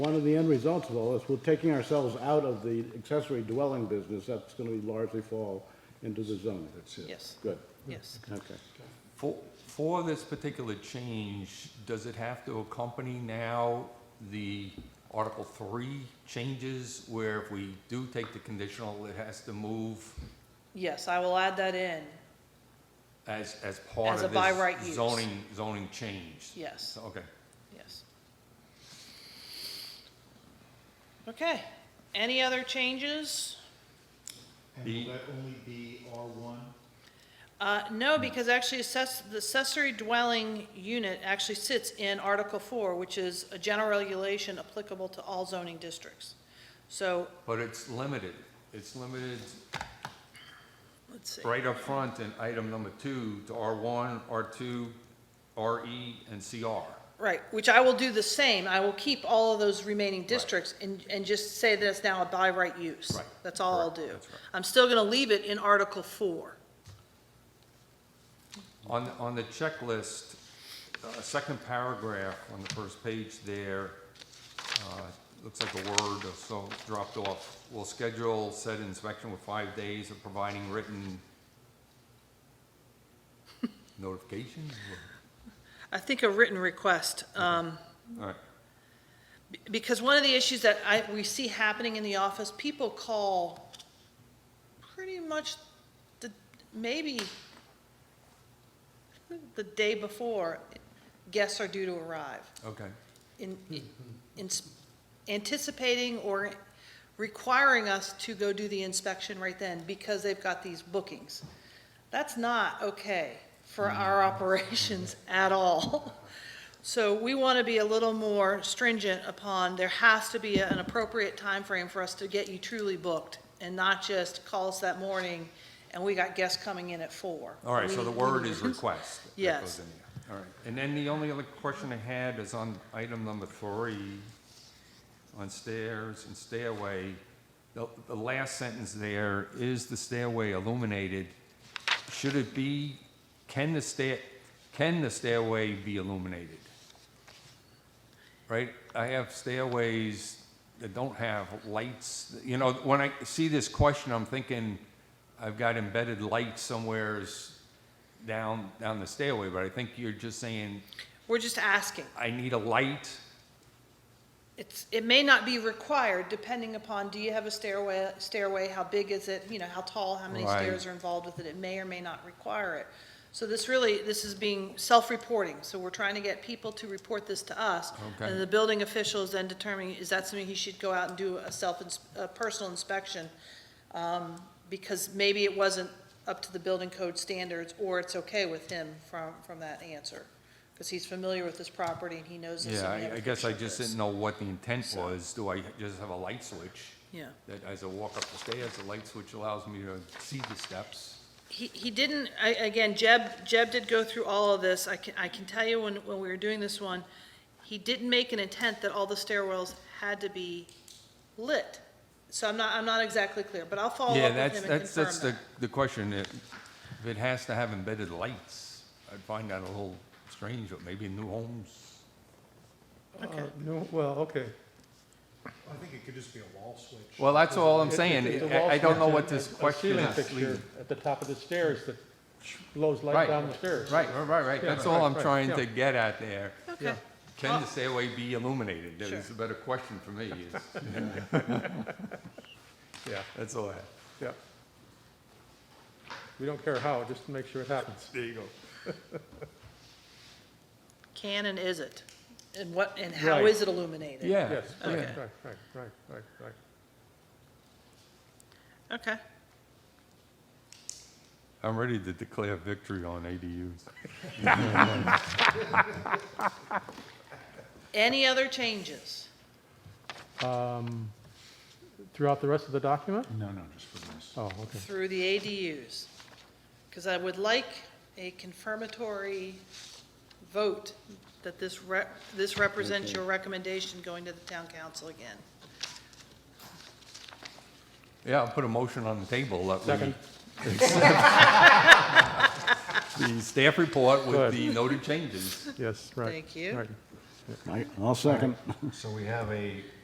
One of the end results of all this, we're taking ourselves out of the accessory dwelling business, that's gonna largely fall into the zone. That's it. Yes. Good, Yes. okay. For, for this particular change, does it have to accompany now the Article Three changes where if we do take the conditional, it has to move Yes, I will add that in, as, as part As of a this? by right use. Zoning, zoning change? yes, Okay. yes. Okay, any other changes? And The- will that only be R1? Uh, no, because actually assess, the accessory dwelling unit actually sits in Article Four, which is a general regulation applicable to all zoning districts. So, But it's limited. It's limited let's see, right up front in item number two to R one, R two, RE, and CR. right, which I will do the same, I will keep all of those remaining districts and, and just say that it's now a by right use. Right, That's all I'll correct, do. that's right. I'm still gonna leave it in Article Four. On, on the checklist, uh, second paragraph on the first page there, uh, looks like a word or so dropped off. Will schedule said inspection with five days of providing written notification? I think a written request, um, All right, b- because one of the issues that I, we see happening in the office, people call pretty much the, maybe the day before guests are due to arrive, okay. in, in anticipating or requiring us to go do the inspection right then because they've got these bookings. That's not okay for Mm. our operations at all. So we want to be a little more stringent upon, there has to be an appropriate time frame for us to get you truly booked and not just call us that morning and we got guests coming in at four. All right, so the We- word is request. that Yes. goes in there. All right, and then the only other question I had is on item number three, on stairs and stairway. The, the last sentence there, is the stairway illuminated? Should it be, can the stair, can the stairway be illuminated? Right, I have stairways that don't have lights, you know, when I see this question, I'm thinking, I've got embedded lights somewheres down, down the stairway, but I think you're just saying, We're just asking. I need a light, It's, it may not be required, depending upon, do you have a stairway, stairway, how big is it, you know, how tall, how many Right. stairs are involved with it, it may or may not require it. So this really, this is being self-reporting, so we're trying to get people to report this to us. Okay. And the building official is then determining, is that something he should go out and do a self, a personal inspection? Um, because maybe it wasn't up to the building code standards, or it's okay with him from, from that answer. Because he's familiar with this property and he knows this. Yeah, and we have I, I a guess picture I of just this. didn't know what the intent was. Do I just have a light switch? Yeah. That as I walk up the stairs, the light switch allows me to see the steps? He, he didn't, I, again, Jeb, Jeb did go through all of this. I can, I can tell you when, when we were doing this one, he didn't make an intent that all the stairwells had to be lit. So I'm not, I'm not exactly clear, but I'll follow Yeah, up with that's, him and that's, that's confirm the, that. the question. If if it has to have embedded lights, I'd find that a little strange, but maybe in new homes. Uh, No, well, okay. I think it could just be a wall switch. Well, that's all I'm It- it's a saying. wall I, I don't know switch what and this a- a question ceiling is. fixture At the top of the stairs that blows light Right, down the stairs. Right, right, right, right. Yeah, That's right, all I'm right, trying yeah. to get at there. Okay, Can the stairway be illuminated? That Sure. is a better question for me. is- Yeah, That's all I have. yeah. We don't care how, just to make sure it happens. There you go. can and is it? And what, and how Right. is it illuminated? Yeah, Yes, yeah. right, Okay. right, right, right, right, right. Okay. I'm ready to declare victory on ADUs. Any other changes? Um, Throughout the rest of the document? No, no, just for this. Oh, okay. through the ADUs. Because I would like a confirmatory vote that this re, this represents your recommendation going to the town council again. Yeah, I'll put a motion on the table that we Second. the staff report with Good. the noted changes. Yes, right. Thank you. right. Right, I'll second. So we have a